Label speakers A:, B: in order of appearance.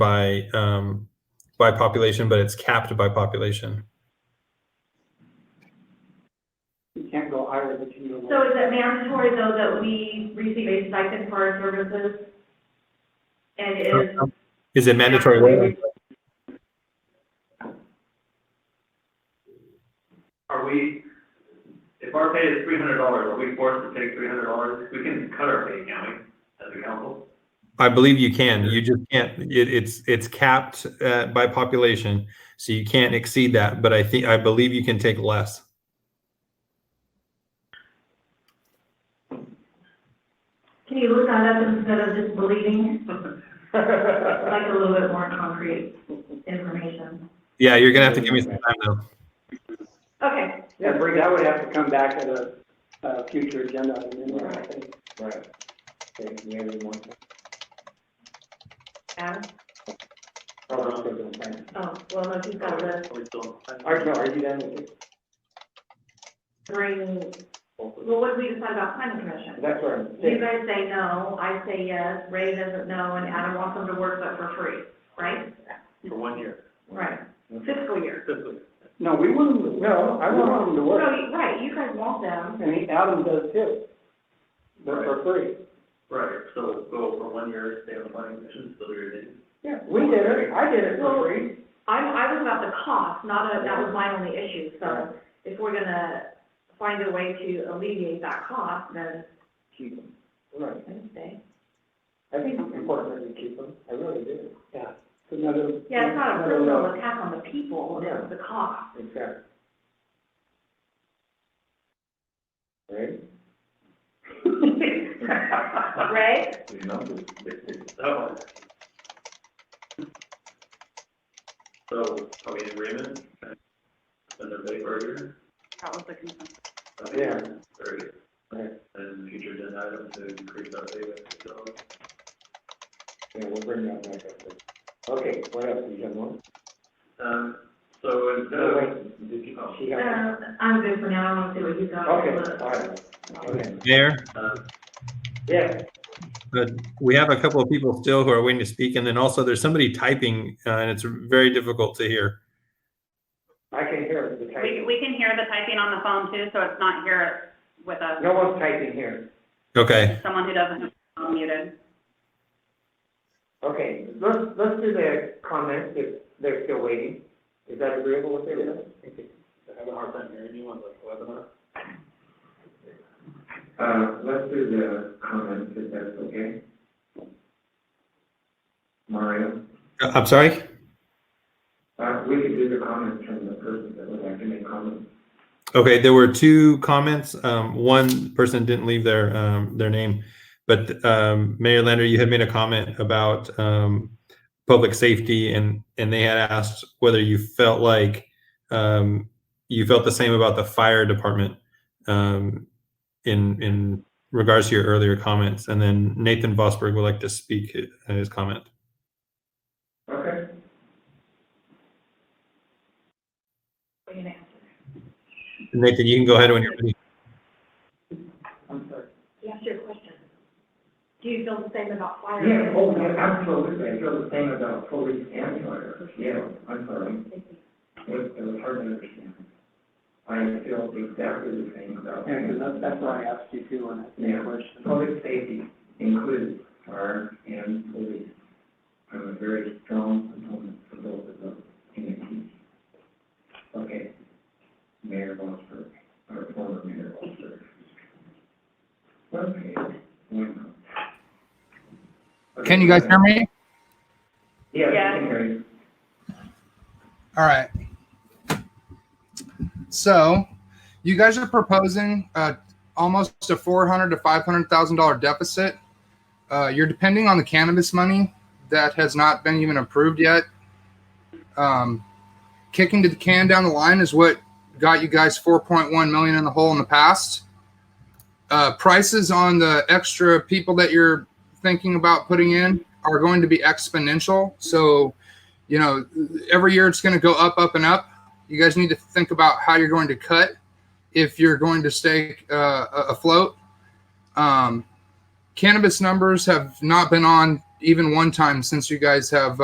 A: by um, by population, but it's capped by population.
B: You can't go higher than you
C: So is it mandatory though that we receive a stipend for our services? And is.
A: Is it mandatory?
D: Are we, if our pay is three hundred dollars, are we forced to take three hundred dollars? We can cut our pay, can't we, as a council?
A: I believe you can. You just can't. It, it's it's capped uh, by population, so you can't exceed that. But I think I believe you can take less.
C: Can you look that up instead of just believing, I'd
B: want.
C: like a little bit more concrete information?
A: Yeah, you're gonna have to give me some time though.
C: Okay,
B: Yeah, Bree, that would have to come back at a, a future agenda. item anyway, I think.
E: Right. Thank you, everyone.
C: Adam,
E: Oh, okay, good, thank you.
C: oh, well, no, he's got the
D: Are we still?
B: Are, no, are you done with it?
C: three, well, what did we decide about planning commission?
E: That's where I'm
C: You
E: saying,
C: guys say no, I say yes, Ray doesn't know, and Adam wants them to work but for free, right?
D: For one year.
C: Right, fiscal year.
D: Fiscal year.
B: No, we wouldn't, no, I want them to
C: So,
B: work,
C: you- right, you guys want them,
B: and he- Adam does too. But for free.
D: Right, so go for one year, stay on the planning commission, still your name.
B: Yeah, we did it, I did it for free.
C: I'm, I was about the cost, not a, that was my only issue, so if we're gonna find a way to alleviate that cost, then
E: keep them.
B: Right.
C: I would say.
B: I think it's important that we keep them, I really do. Yeah. It's another.
C: Yeah, it's not
B: another-
C: a personal attack on the people, it's the cost.
E: Exactly. Right?
C: Right?
E: You know.
D: That one. So, are we in agreement? Spend our pay for a year?
C: That was the concern.
D: Okay.
E: Yeah.
D: Very good.
E: Right.
D: And future agenda item to increase our pay, so.
E: Yeah, we'll bring that back up. later. Okay, what else, you got more?
D: Um, so instead
E: No,
D: of,
E: wait, did you,
D: Oh.
E: she got,
C: Um, I'm good for now, I wanna see what you got.
E: okay, all right, okay,
A: Mayor,
D: uh,
E: yeah,
A: but we have a couple of people still who are waiting to speak, and then also there's somebody typing, uh, and it's very difficult to hear.
E: I can hear the
F: We,
E: typing,
F: we can hear the typing on the phone too, so it's not here with us.
E: no one's typing here.
A: Okay.
F: Someone who doesn't have their phone muted.
E: Okay, let's, let's do the comments if they're still waiting. Is that agreeable with everyone? Okay.
D: I have a hard time hearing you on the webinar.
E: Uh, let's do the comments if that's okay. Mario,
A: Uh, I'm sorry.
E: uh, we could do the comments from the person that would like to make comments.
A: Okay, there were two comments. Um, one person didn't leave their um, their name, but um, Mayor Lander, you had made a comment about um, public safety, and and they had asked whether you felt like um, you felt the same about the fire department um, in in regards to your earlier comments. And then Nathan Vosberg would like to speak uh, his comment.
E: Okay.
C: What are you gonna ask?
A: Nathan, you can go ahead when you're ready.
B: I'm sorry.
C: You asked your question. Do you feel the same about fire?
E: Yeah, oh, yeah, absolutely, I feel the same about police and fire, yeah, I'm sorry, it, it was hard to understand. I feel exactly the same about.
B: Yeah, because that's, that's why I asked you too, when I asked
E: Yeah.
B: the question.
E: Public safety includes fire and police. I'm a very strong proponent for both of those entities. Okay, Mayor Walter, or former Mayor Walter. Okay, why not?
G: Can you guys hear me?
E: Yeah, we
F: Yeah.
E: can hear you.
G: All right. So, you guys are proposing uh, almost a four hundred to five hundred thousand dollar deficit. Uh, you're depending on the cannabis money that has not been even approved yet. Um, kicking to the can down the line is what got you guys four point one million in the hole in the past. Uh, prices on the extra people that you're thinking about putting in are going to be exponential. So you know, every year it's going to go up, up, and up. You guys need to think about how you're going to cut if you're going to stay uh, a- afloat. Um, cannabis numbers have not been on even one time since you guys have